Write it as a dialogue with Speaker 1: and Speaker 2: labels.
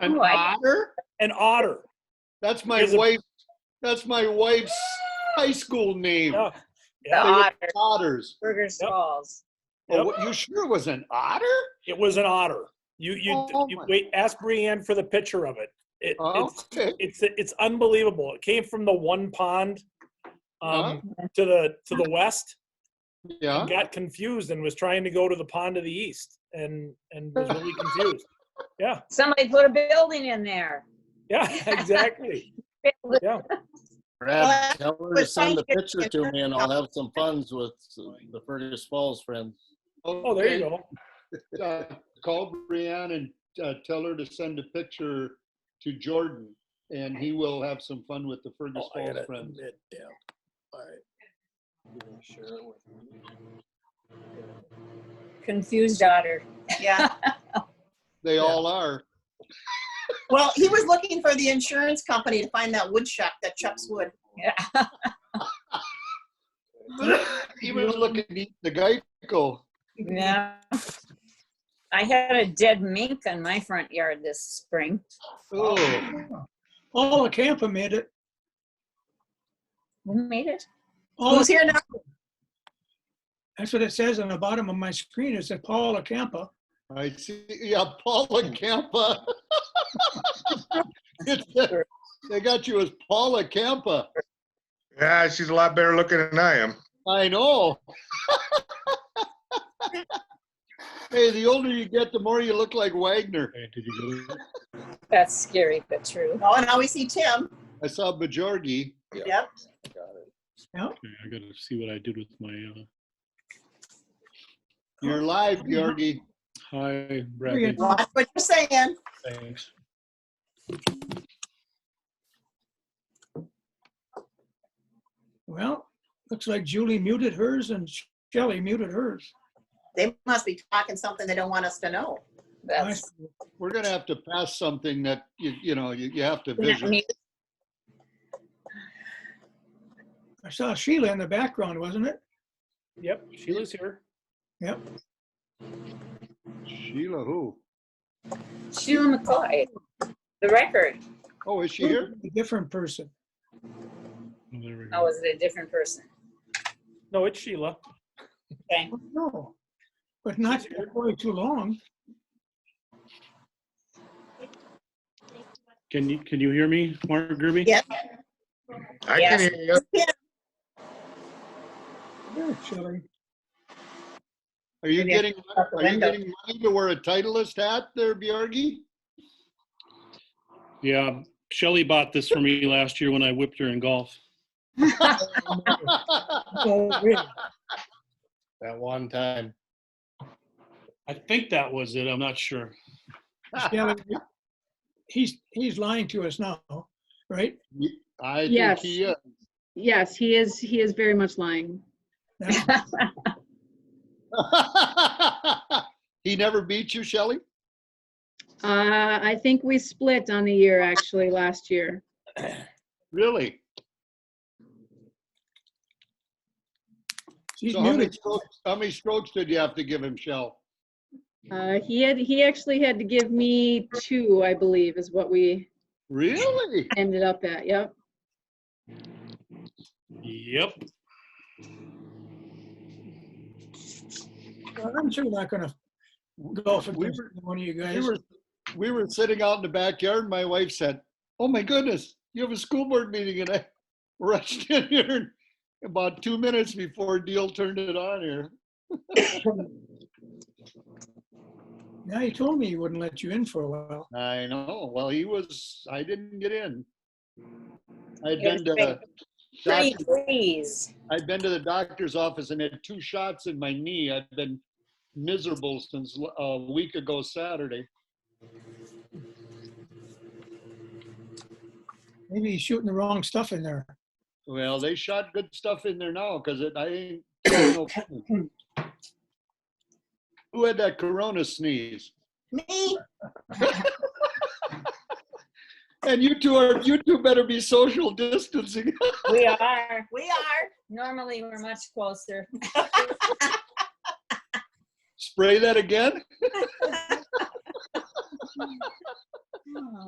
Speaker 1: An
Speaker 2: Ooh, I-
Speaker 1: otter?
Speaker 3: An otter.
Speaker 1: That's my
Speaker 3: Is it-
Speaker 1: wife. That's my wife's high school name.
Speaker 3: Yeah.
Speaker 2: The
Speaker 3: Yeah.
Speaker 2: otter,
Speaker 1: Otters.
Speaker 2: Burger Smalls.
Speaker 1: Oh, what- you sure it was an otter?
Speaker 3: It was an otter. You you,
Speaker 1: Oh,
Speaker 3: you
Speaker 1: my-
Speaker 3: wait. Ask Brianne for the picture of it. it
Speaker 1: Oh,
Speaker 3: it's,
Speaker 1: okay.
Speaker 3: it's it's unbelievable. It came from the one pond um, to the to the west.
Speaker 1: Yeah.
Speaker 3: Got confused and was trying to go to the pond to the east and and was really confused. Yeah,
Speaker 2: Somebody put a building in there.
Speaker 3: yeah, exactly. Yeah,
Speaker 4: Brad, tell her to
Speaker 5: was
Speaker 4: send the
Speaker 5: trying to get
Speaker 4: picture to me and I'll have some funds with the Fergus Falls friends.
Speaker 3: oh, there you go.
Speaker 1: go. Uh, call Brianne and uh, tell her to send a picture to Jordan, and he will have some fun with the Fergus
Speaker 3: Oh, I
Speaker 1: Falls
Speaker 3: gotta
Speaker 1: friends.
Speaker 3: admit, yeah. All right. Share it with me.
Speaker 2: Confused otter.
Speaker 5: Yeah.
Speaker 1: They
Speaker 3: Yeah.
Speaker 1: all are.
Speaker 5: Well, he was looking for the insurance company to find that wood shop that Chuck's wood.
Speaker 1: he was looking to eat the Geico.
Speaker 5: Mm-hmm.
Speaker 2: Yeah. I had a dead mink on my front yard this spring.
Speaker 1: Oh,
Speaker 6: All the camper made it.
Speaker 2: Who made it?
Speaker 6: All
Speaker 5: Who's
Speaker 6: the-
Speaker 5: here now?
Speaker 6: that's what it says on the bottom of my screen. It said Paul the camper.
Speaker 1: I see. Yeah, Paula Campa. It's- they got you as Paula Campa.
Speaker 7: Yeah, she's a lot better looking than I am.
Speaker 1: I know. hey, the older you get, the more you look like Wagner.
Speaker 2: That's scary, but true.
Speaker 5: Oh, and now we see Tim.
Speaker 1: I saw Bajorgi.
Speaker 5: Yep.
Speaker 8: I gotta see what I did with my, uh,
Speaker 1: You're live, Bjorgi.
Speaker 8: hi,
Speaker 6: Brilliant.
Speaker 8: Brad,
Speaker 5: Well, that's what you're saying.
Speaker 8: thanks.
Speaker 6: Well, looks like Julie muted hers and Shelley muted hers.
Speaker 5: They must be talking something they don't want us to know.
Speaker 2: That's
Speaker 1: We're gonna have to pass something that you you know you, you have to
Speaker 2: not
Speaker 1: vision.
Speaker 2: me.
Speaker 6: I saw Sheila in the background, wasn't it?
Speaker 3: Yep, Sheila's here.
Speaker 6: Yep.
Speaker 1: Sheila, who?
Speaker 2: Sheila McCoy, the record.
Speaker 1: Oh, is she here?
Speaker 6: A different person.
Speaker 8: Oh, there we
Speaker 2: Oh,
Speaker 8: go.
Speaker 2: was it a different person?
Speaker 3: No, it's Sheila.
Speaker 6: No. But not quite too long.
Speaker 8: Can you, can you hear me, Mark Gerby?
Speaker 5: Yeah.
Speaker 7: I
Speaker 2: Yes.
Speaker 7: can hear you.
Speaker 6: Yeah, Shelley.
Speaker 1: Are you
Speaker 2: Maybe I
Speaker 1: getting
Speaker 2: out the
Speaker 1: are you
Speaker 2: window.
Speaker 1: getting money to wear a titleist hat there, Bjorgi?
Speaker 8: Yeah, Shelley bought this for me last year when I whipped her in golf.
Speaker 6: Oh, really?
Speaker 4: That one time.
Speaker 8: I think that was it, I'm not sure.
Speaker 6: Shelley, He's, he's lying to us now, right?
Speaker 1: I think
Speaker 9: Yes.
Speaker 1: he is.
Speaker 9: Yes, he is, he is very much lying.
Speaker 6: That's-
Speaker 1: he never beat you, Shelley?
Speaker 9: Uh, I think we split on the year, actually, last year.
Speaker 1: Really?
Speaker 6: She's
Speaker 1: So how many
Speaker 6: muted.
Speaker 1: strokes, how many strokes did you have to give him, Shell?
Speaker 9: Uh, he had, he actually had to give me two, I believe, is what we
Speaker 1: Really?
Speaker 9: ended up at, yep.
Speaker 8: Yep,
Speaker 6: Well, I'm sure not gonna golf
Speaker 1: We
Speaker 6: against
Speaker 1: were-
Speaker 6: one of you
Speaker 1: We
Speaker 6: guys.
Speaker 1: were, we were sitting out in the backyard and my wife said, oh my goodness, you have a school board meeting and I rushed in here and about two minutes before Deal turned it on here.
Speaker 6: Now he told me he wouldn't let you in for a while.
Speaker 1: I know. Well, he was, I didn't get in. uh, I'd
Speaker 2: It was
Speaker 1: been to,
Speaker 2: great.
Speaker 1: doctor-
Speaker 2: Pretty please.
Speaker 1: I'd been to the doctor's office and had two shots in my knee. I've been miserable since uh, a week ago Saturday.
Speaker 6: Maybe he's shooting the wrong stuff in there.
Speaker 1: Well, they shot good stuff in there now because it I ain't got no fun. Who had that corona sneeze?
Speaker 5: Me?
Speaker 1: And you two are you two better be social distancing.
Speaker 2: We are.
Speaker 5: We are.
Speaker 2: Normally, we're much closer.
Speaker 1: Spray that again?
Speaker 5: Hmm.